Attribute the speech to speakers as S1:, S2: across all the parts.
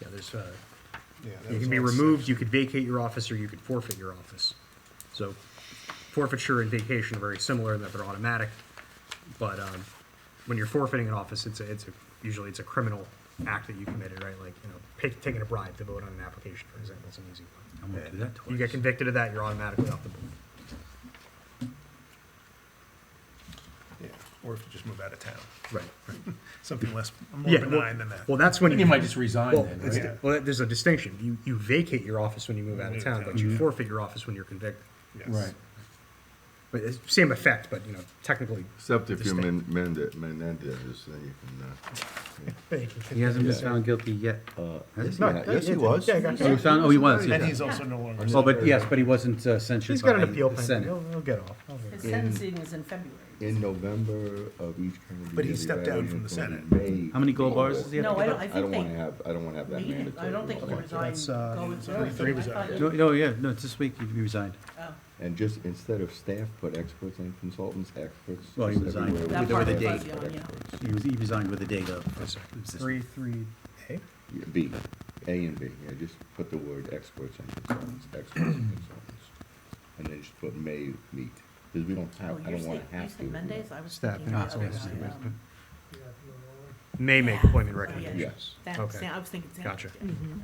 S1: Yeah, there's, uh,
S2: Yeah, that
S1: you
S2: was
S1: can be
S2: all
S1: removed,
S2: six.
S1: you could vacate your office, or you could forfeit your office. So forfeiture and vacation are very similar in that they're automatic, but, um, when you're forfeiting an office, it's a, it's a, usually it's a criminal act that you committed, right? Like, you know, pick, taking a bribe to vote on an application, for example, is an easy one.
S3: I won't do that
S1: You
S3: twice.
S1: get convicted of that, you're automatically off the board.
S2: Yeah, or if you just move out of town,
S1: Right, right.
S2: something less, more
S1: Yeah,
S2: benign
S1: well-
S2: than that.
S1: Well, that's when you.
S3: You might just resign
S1: Well,
S3: then,
S1: it's-
S3: right?
S1: well, there's a distinction. You, you vacate your office when you move out of
S2: Move
S1: town,
S2: town.
S1: but you
S3: Mhm.
S1: forfeit your office when you're convicted.
S2: Yes.
S3: Right.
S1: But it's same effect, but, you know, technically.
S4: Except if you
S1: distinct.
S4: men- mend it, Menendez, then you can, uh.
S3: He hasn't been found guilty yet. Has he?
S4: yeah. Yes, he was.
S1: Yeah, I got
S3: Oh, he
S1: you.
S3: found, oh, he was.
S2: And
S3: yeah.
S2: he's also no longer.
S3: Oh, but yes, but he wasn't uh,
S1: He's
S3: censured by
S1: got an appeal
S3: the
S1: pending.
S3: Senate.
S1: He'll, he'll get off. He'll
S5: His
S1: get off.
S5: sentencing is in February.
S4: In November of each calendar year.
S2: But he
S4: the
S2: stepped down from the Senate.
S4: evaluation will be made.
S3: How many gold bars does he have?
S5: No, I don't, I
S4: I
S5: think
S4: don't wanna
S5: they,
S4: have, I don't wanna have that
S5: he didn't-
S4: mandatory.
S5: I don't think he
S4: law.
S5: resigned.
S1: That's, uh,
S5: Go
S2: I
S5: with
S2: think
S5: Thursday.
S2: he
S5: I thought
S2: resigned.
S3: No,
S5: he-
S3: no, yeah, no, it's this week he resigned.
S5: oh.
S4: And just, instead of staff, put experts and consultants, experts.
S3: Well, he
S4: just
S3: resigned.
S4: everywhere.
S5: That
S4: We
S5: part
S4: put
S5: was
S4: experts,
S5: fuzzy on, yeah.
S4: experts.
S3: He was, he resigned with the date of.
S1: That's it.
S3: It's this-
S1: Three, three, A?
S4: Yeah, B, A and B, yeah, just put the word experts and consultants, experts and consultants. And then just put may meet, because we don't
S5: Oh,
S4: have, I
S5: you
S4: don't wanna
S5: said, you
S4: have to.
S5: said Mondays, I was
S1: Staff
S5: thinking
S3: Oh,
S5: the
S1: and
S5: other way
S1: consultants.
S5: around.
S1: May make appointment
S5: Yeah.
S1: recommendations.
S5: That,
S1: Okay.
S5: Sam- I was thinking. Sam-
S1: Gotcha.
S5: yeah.
S6: Mm-hmm.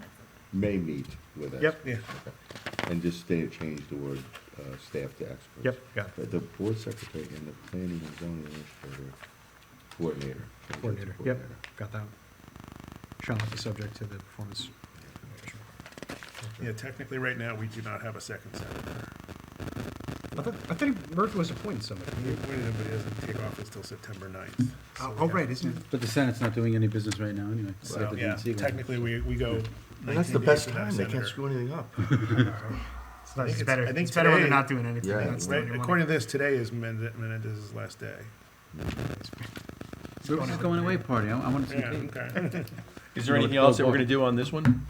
S4: May meet with experts.
S1: Yep.
S2: Yeah,
S4: And just stay, change the word, uh, staff to experts.
S1: Yep, got it.
S4: The- The board secretary and the planning and zoning administrator coordinator. change it to
S1: Coordinator, yep,
S4: coordinator.
S1: got that. one. Shall not be subject to the performance.
S2: yeah, technically, right now, we do not have a second senator.
S1: I thought, I thought Murphy was appointing somebody.
S2: We appointed him, but he doesn't take office till September ninth.
S1: Oh, oh, right, isn't it?
S3: But the Senate's not doing any business right now anyway. It's like
S2: So,
S3: the
S2: yeah,
S3: DNC one.
S2: technically, we, we go
S4: And that's
S2: nineteen
S4: the
S2: days
S4: best
S2: without a
S4: time, they can't
S2: senator.
S4: screw anything up.
S2: think
S1: It's
S2: it's-
S1: better,
S2: I think
S1: it's better when they're
S2: today-
S1: not doing anything.
S4: Yeah.
S1: That's the
S2: Right,
S1: only one.
S2: according to this, today is Mende- Menendez's last day.
S3: Where was this going away party? I, I want to see.
S2: Yeah,
S3: tape.
S2: okay.
S6: Is there anything else that we're gonna do on this one?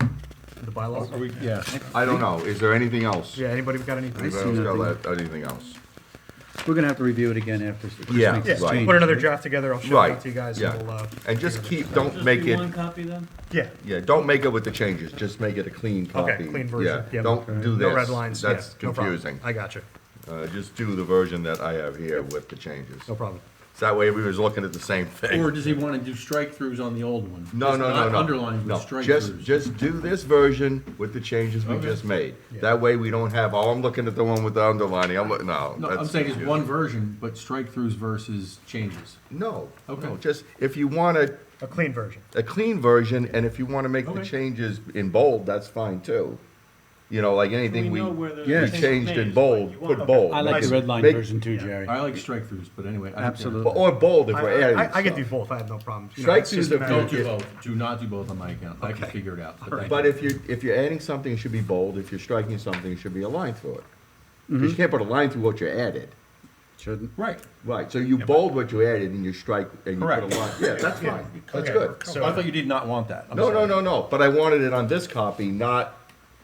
S1: The bylaws?
S6: Are we, yeah.
S4: I don't know, is there anything else?
S1: Yeah, anybody got any?
S4: Anybody
S3: see
S4: else got
S3: nothing.
S4: that- anything else?
S3: We're gonna have to review it again after. just
S4: Yeah,
S3: make this
S4: right.
S3: change.
S1: Put another draft together, I'll show it out
S4: Right,
S1: to you guys.
S4: yeah.
S1: we'll, uh,
S4: And just keep, don't make it,
S6: copy then?
S1: Yeah,
S4: yeah, don't make it with the changes, just make it a clean copy.
S1: clean version,
S4: Yeah,
S1: yep.
S4: don't do this.
S1: no red lines, yeah,
S4: That's
S1: no problem.
S4: confusing.
S1: I got you,
S4: Uh, just do the version that I have here with the changes.
S1: no problem.
S4: So that way we was looking at the same thing.
S6: Or does he wanna do strike-throughs on the old one?
S4: No,
S6: Just
S4: no, no,
S6: not
S4: no.
S6: Underlined
S4: No,
S6: with
S4: Just,
S6: strike-throughs.
S4: just do this version with the changes we
S6: Okay.
S4: just made.
S1: Yeah.
S4: That way we don't have, oh, I'm looking at the one with the underlining, I'm looking, no.
S6: No, I'm
S4: that's
S6: saying it's
S4: confusing.
S6: one version, but strike-throughs versus changes.
S4: No, no,
S6: Okay.
S4: just, if you want a,
S1: A clean version.
S4: a clean version, and if you wanna make the
S6: Okay.
S4: changes in bold, that's fine too. You know, like anything we,
S3: Yeah.
S4: we changed in bold, put bold.
S3: I like the
S4: Make-
S3: red line
S4: make-
S3: version too, Jerry.
S6: I like strike-throughs, but anyway. I don't care.
S3: Absolutely.
S4: Or bold if
S1: I,
S4: we're adding
S1: I, I could do
S4: stuff.
S1: both, I have no problem. You know,
S4: Strike
S1: it's
S4: through
S1: just
S4: the
S1: a matter
S6: Don't
S1: of-
S6: do both, do not do both on my account, I can figure it out. but thank
S4: But
S6: you.
S4: if you, if you're adding something, it should be bold. If you're striking something, it should be a line through it.
S3: Mm-hmm.
S4: Because you can't put a line through what you added.
S3: Shouldn't.
S6: Right,
S4: Right, so you bold what you added and you strike and you put a
S6: Correct.
S4: line. Yeah, that's fine. That's
S2: Okay,
S4: good.
S2: so-
S6: so I thought you did not want that. I'm
S4: No, no,
S6: sorry.
S4: no, no. But I wanted it on this copy, not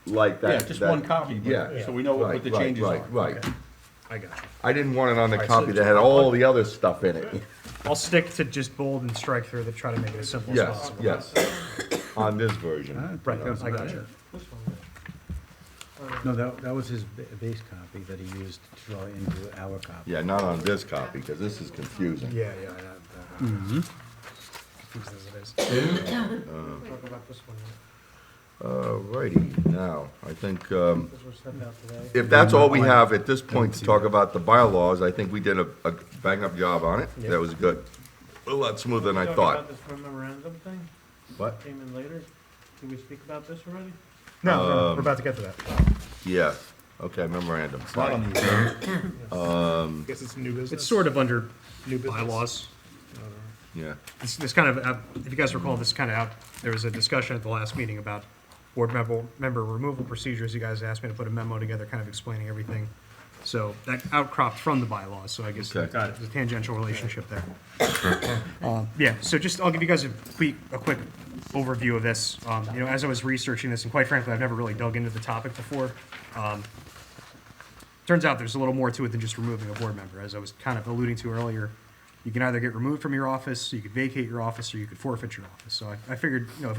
S4: like
S6: Yeah,
S4: that.
S6: just
S4: that-
S6: one copy,
S4: Yeah.
S6: but, so we know what
S4: Right,
S6: what the
S4: right,
S6: changes are.
S4: Right, right.
S1: I got you.
S4: I didn't want it on the copy that had all the other stuff in it.
S1: I'll stick to just bold and strike through to try to make it as simple as
S4: Yes,
S1: possible.
S4: yes. On this version.
S1: Right,
S3: That was
S1: I
S3: about
S1: got you.
S3: it. No, that, that was his ba- base copy that he used to draw into our copy.
S4: Yeah, not on this copy, because this is confusing.
S1: Yeah, yeah, I- I- I'm confused as it is.
S4: Alrighty, now, I think, um, if that's all we have at this point to talk about the bylaws, I think we did a, a bang-up job on it. That was good. A lot smoother than I thought.
S7: Talking about this memorandum thing,
S4: What?
S7: came in later, did we speak about this already?
S1: No, no, no, we're about to get to that.
S4: Yeah, okay, memorandum,
S6: It's not on
S4: fine.
S6: the agenda.
S2: Guess it's new business.
S1: It's sort of under
S2: New business.
S1: bylaws.
S4: Yeah,
S1: This, this kind of, uh, if you guys recall, this kind of out, there was a discussion at the last meeting about board member, member removal procedures. You guys asked me to put a memo together, kind of explaining everything. So that outcropped from the bylaws, so I guess
S4: Okay. Got
S1: there's a tangential relationship there. Uh, Yeah, so just, I'll give you guys a quick, a quick overview of this. Um, You know, as I was researching this, and quite frankly, I've never really dug into the topic before. um, Turns out there's a little more to it than just removing a board member. As I was kind of alluding to earlier, you can either get removed from your office, you could vacate your office, or you could forfeit your office. So I, I figured, you know, if